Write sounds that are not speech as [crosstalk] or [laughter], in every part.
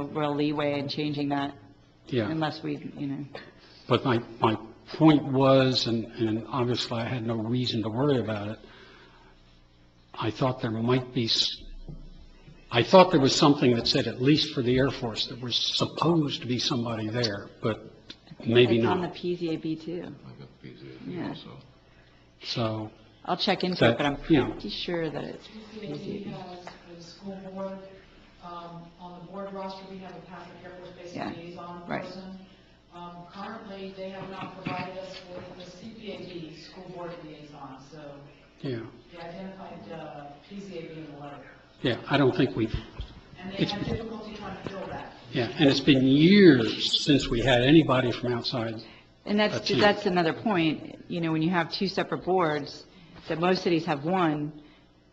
real leeway in changing that yeah. unless we, you know. But my, my point was, and, and obviously I had no reason to worry about it, I thought there might be, s- I thought there was something that said, at least for the Air Force, there was supposed to be somebody there, but maybe It's on the not. PZAB too. I got the PZAB Yeah. also. So, I'll check into it, That- but I'm yeah. pretty sure that it's PZAB PZAB. has for the school board, um, on the board roster, we have a Catholic Air Force Base Yeah, liaison right. person. Um, Currently, they have not provided us with the CPAB, school board liaison, so yeah, they identified uh, PZAB in the letter. yeah, I don't think we've, And they It's- have difficulty trying to fill that. yeah, and it's been years since we had anybody from outside. And that's, That's it. that's another point, you know, when you have two separate boards, that most cities have one,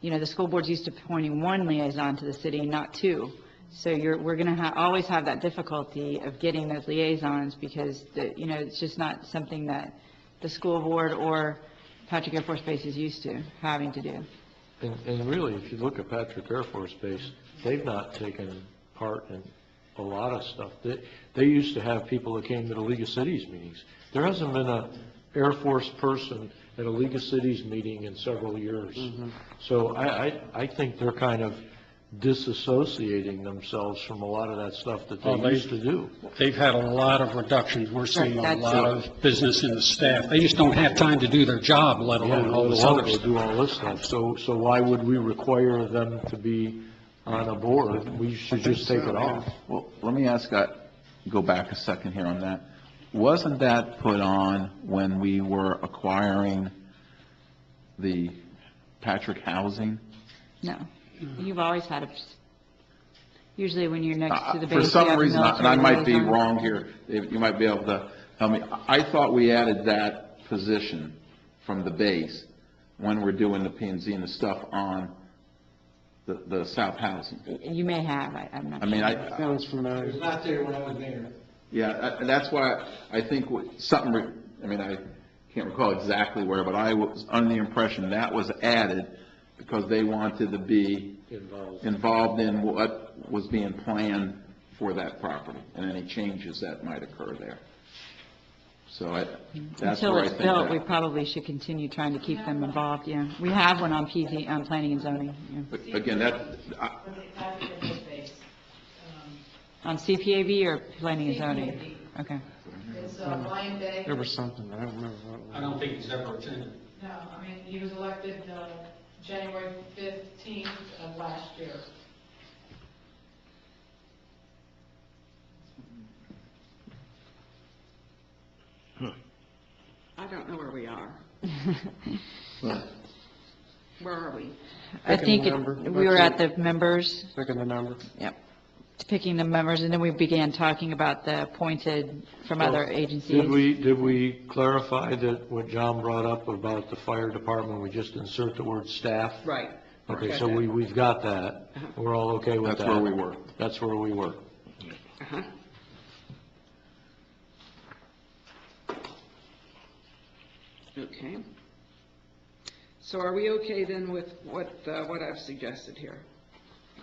you know, the school board's used to appointing one liaison to the city and not two. So you're, we're going to ha, always have that difficulty of getting those liaisons because, the you know, it's just not something that the school board or Patrick Air Force Base is used to having to do. And, and really, if you look at Patrick Air Force Base, they've not taken part in a lot of stuff. They, they used to have people that came to the League of Cities meetings. There hasn't been a Air Force person at a League of Cities meeting in several years. So I, I, I think they're kind of disassociating themselves from a lot of that stuff that Oh, they- they used to do. They've had a lot of reductions. We're seeing a Right, that's- lot of business in the staff. They just don't have time to do their job, let Yeah, alone all all this the other others stuff. do all this stuff, so, so why would we require them to be on a board? We should just take it off. Well, let me ask, uh, go back a second here on that. Wasn't that put on when we were acquiring the Patrick Housing? No. You've always had a, usually when you're next to the base. you Uh, For have some a reason, and I military might be liaison. wrong here, If you might be able to help me, I I thought we added that position from the base when we're doing the P and Z and the stuff on the, the South Housing. You may have, I- I'm not I sure. mean, I, Sounds familiar. It was not there when I was there. Yeah, I- and that's why I think what- something, re- I mean, I can't recall exactly where, but I was under the impression that was added because they wanted to be Involved. involved in what was being planned for that property and any changes that might occur there. So I, that's Until where I it's think built, we that. probably should continue trying to keep them involved, yeah. We have one on PZ, on planning and zoning, yeah. But Again, that, I- But they have it in the base. Um, On CPAB or planning and zoning? CPAB. Okay. It's uh, Ryan Day. There was something, I don't remember what it was. I don't think he's ever attended. No, I mean, he was elected uh, January 15th of last year. I don't know where we [laughs] are. Where are we? I Picking think the it- number. we were at the members, Look at the number. yep, picking the members, and then we began talking about the appointed from other agencies. Did we, did we clarify that what John brought up about the fire department, we just insert the word staff? Right. Okay, so we, we've got that. Uh-huh. We're all okay with that. that's where we were. That's where we were. Uh-huh. Okay. So are we okay then with what, uh, what I've suggested here?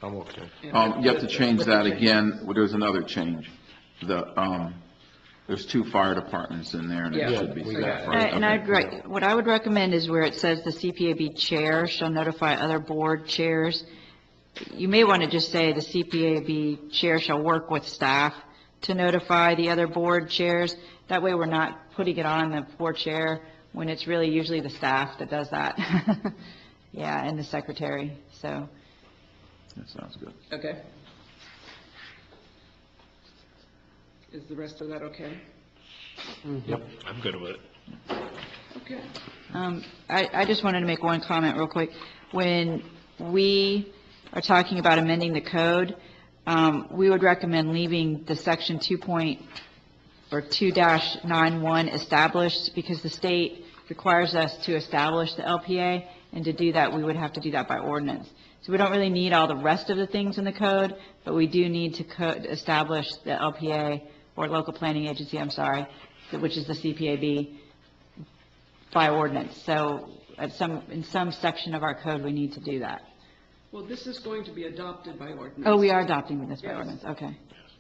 I'm okay. Um, you have to change With the that again, Well, there's another change. The, um, there's two fire departments in there and it Yeah, should be we got staff, it. right? Right, And I'd, Okay. rec- what I would recommend is where it says the CPAB chair shall notify other board chairs, you may want to just say the CPAB chair shall work with staff to notify the other board chairs. That way, we're not putting it on the poor chair when it's really usually the staff that does that. [laughs] Yeah, and the secretary, so. That sounds good. Okay. Is the rest of that okay? Yep. I'm good with it. Okay. Um, I I just wanted to make one comment real quick. When we are talking about amending the code, um, we would recommend leaving the section 2 point, or 2-91 established, because the state requires us to establish the LPA, and to do that, we would have to do that by ordinance. So we don't really need all the rest of the things in the code, but we do need to co- establish the LPA, or local planning agency, I'm sorry, which is the CPAB, by ordinance. So at some, in some section of our code, we need to do that. Well, this is going to be adopted by ordinance. Oh, we are adopting this by Yes. ordinance, okay.